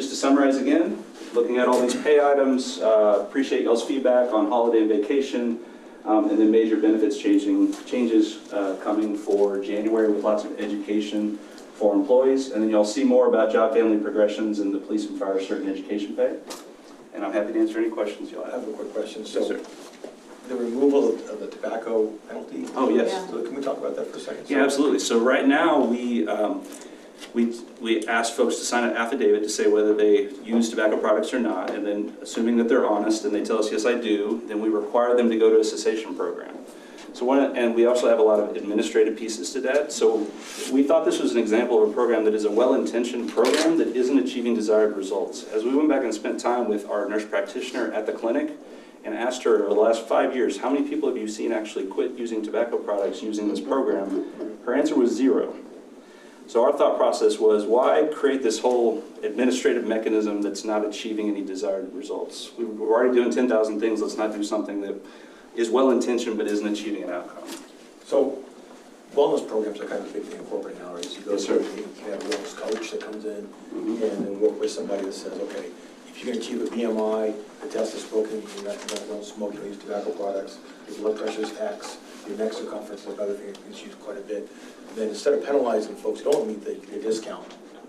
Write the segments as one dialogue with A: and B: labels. A: summarize again, looking at all these pay items, uh, appreciate y'all's feedback on holiday and vacation, um, and then major benefits changing, changes uh, coming for January with lots of education for employees. And then y'all see more about job family progressions and the police and fire certain education pay. And I'm happy to answer any questions y'all
B: I
A: have.
B: have a quick question.
A: Yes,
B: So
A: sir.
B: the removal of of the tobacco penalty?
A: Oh, yes.
B: So can we talk about that for a second?
A: Yeah, absolutely. So right now, we, um, we, we ask folks to sign an affidavit to say whether they use tobacco products or not, and then assuming that they're honest and they tell us, yes, I do, then we require them to go to a cessation program. So one, and we also have a lot of administrative pieces to that. So we thought this was an example of a program that is a well-intentioned program that isn't achieving desired results. As we went back and spent time with our nurse practitioner at the clinic and asked her over the last five years, how many people have you seen actually quit using tobacco products using this program? Her answer was zero. So our thought process was, why create this whole administrative mechanism that's not achieving any desired results? We We're already doing 10,000 things, let's not do something that is well-intentioned but isn't achieving an outcome.
B: So wellness programs are kind of a big thing in corporate now, right? So you go
A: Yes,
B: to-
A: sir. Mm-hmm.
B: You can have a wellness coach that comes in and then work with somebody that says, okay, if you can achieve a BMI, the test is broken, you not- you don't don't smoke, you don't use tobacco products, your blood pressure is X, your neck circumference, like other things, it's used quite a bit. Then instead of penalizing folks who don't meet the the discount,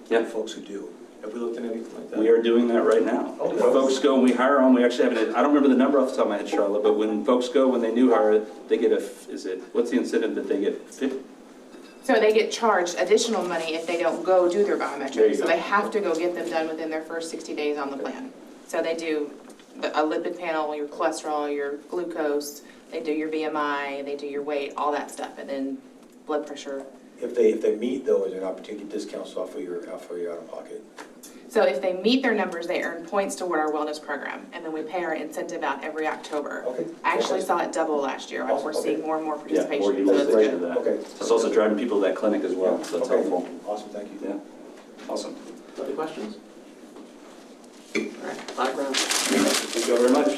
A: Yeah.
B: folks who do. Have we looked at anything like that?
A: We are doing that right now.
B: Oh,
A: If
B: wow.
A: folks go and we hire them, we actually have, an I don't remember the number off the top of my head, Charlotte, but when folks go, when they new hire, they get a, f- is it, what's the incentive that they get? Fif-
C: So they get charged additional money if they don't go do their
A: There you
C: biometrics. So
A: go.
C: they have to go get them done within their first 60 days on the plan. So they do the- a lipid panel, your cholesterol, your glucose, they do your BMI, they do your weight, all that stuff, and then blood pressure.
B: If they, if they meet though, is there an opportunity to discount off of your, off of your out-of-pocket?
C: So if they meet their numbers, they earn points toward our wellness program, and then we pay our incentive out every October.
B: Okay.
C: I actually saw it double last year.
B: Awesome,
C: We're
B: okay.
C: seeing more and more
A: Yeah,
C: participation,
A: more
C: so it's
A: utilization of
C: good.
A: that.
B: Okay.
A: It's also driving people to that clinic as well, so that's
B: Okay.
A: helpful.
B: Awesome, thank you.
A: Yeah, awesome.
D: Other questions? All right, Black round.
A: Thank you all very much.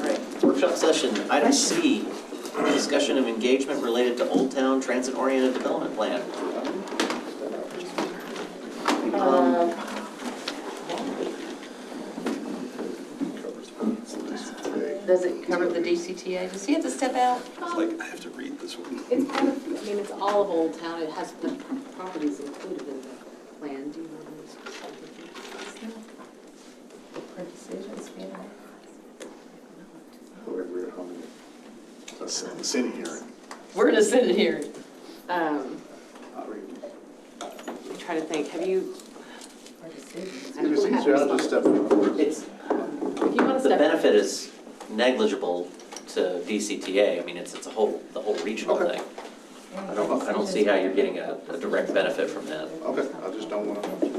D: All right, workshop session, item C, discussion of engagement related to Old Town Transit Oriented Development Plan. Um,
E: Does it cover the DCTA? Does he have to step out?
A: Like, I have to read this one.
F: It's kind of, I mean, it's all of Old Town, it has the properties included in the plan, do you want to?
E: For decisions, you know.
G: Send this in here.
F: We're gonna send it here. Um, I'm trying to think, have you,
E: For decisions.
F: I don't have it.
G: I'll just step in.
D: It's,
F: if you want to
D: the
F: step.
D: benefit is negligible to DCTA, I mean, it's, it's a whole, the whole regional
G: Okay.
D: thing. I don't, I don't see how you're getting a, a direct benefit from that.
G: Okay, I just don't want to.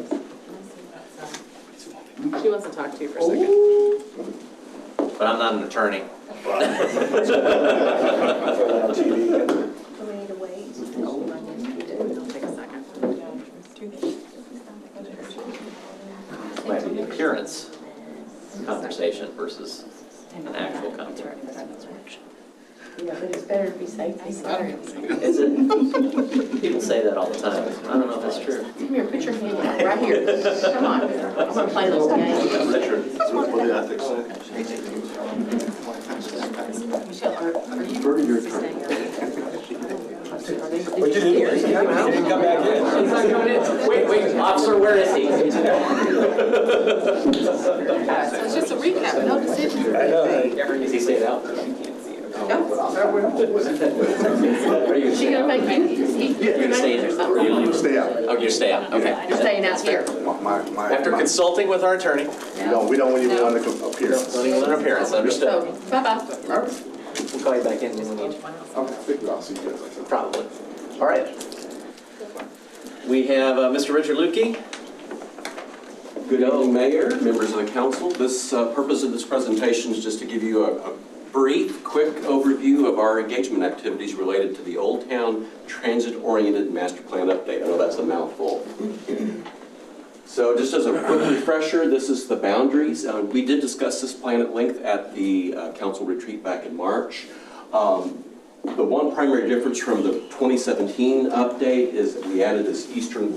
F: She wants to talk to you for a second.
D: But I'm not an attorney.
E: Do we need to wait? It'll take a second.
D: Might be an appearance conversation versus an actual conversation.
E: Yeah, but it's better to be safe than sorry.
D: Is it, people say that all the time, I don't know if that's true.
E: Come here, put your hand out, right here. Come on, I'm gonna play this game.
G: Richard, what the ethics say?
E: Michelle, are are you staying? Are they- did
B: But you didn't,
E: hear?
B: you didn't come back in.
D: Wait, wait, officer, where is he?
C: So it's just a recap, no decisions.
B: I know.
D: Is he stayed out?
E: She gonna make you, you-
D: You're gonna stay in?
E: You're
D: Oh,
G: Stay out.
D: you're staying out, okay.
E: staying out here.
G: My, my- my.
D: After consulting with our attorney,
G: No, we don't even want to appear.
D: don't even an appearance,
E: So,
D: understood.
E: bye-bye.
D: We'll call you back in when we need you,
G: Okay, figure I'll see you guys.
D: probably. All right. We have uh, Mr. Richard Lukey.
H: Good evening, Mayor, members of the council. This uh, purpose of this presentation is just to give you a a brief, quick overview of our engagement activities related to the Old Town Transit-Oriented Master Plan Update. I know that's a mouthful. So just as a quick refresher, this is the boundaries. Uh, We did discuss this plan at length at the uh, council retreat back in March. Um, The one primary difference from the 2017 update is that we added this eastern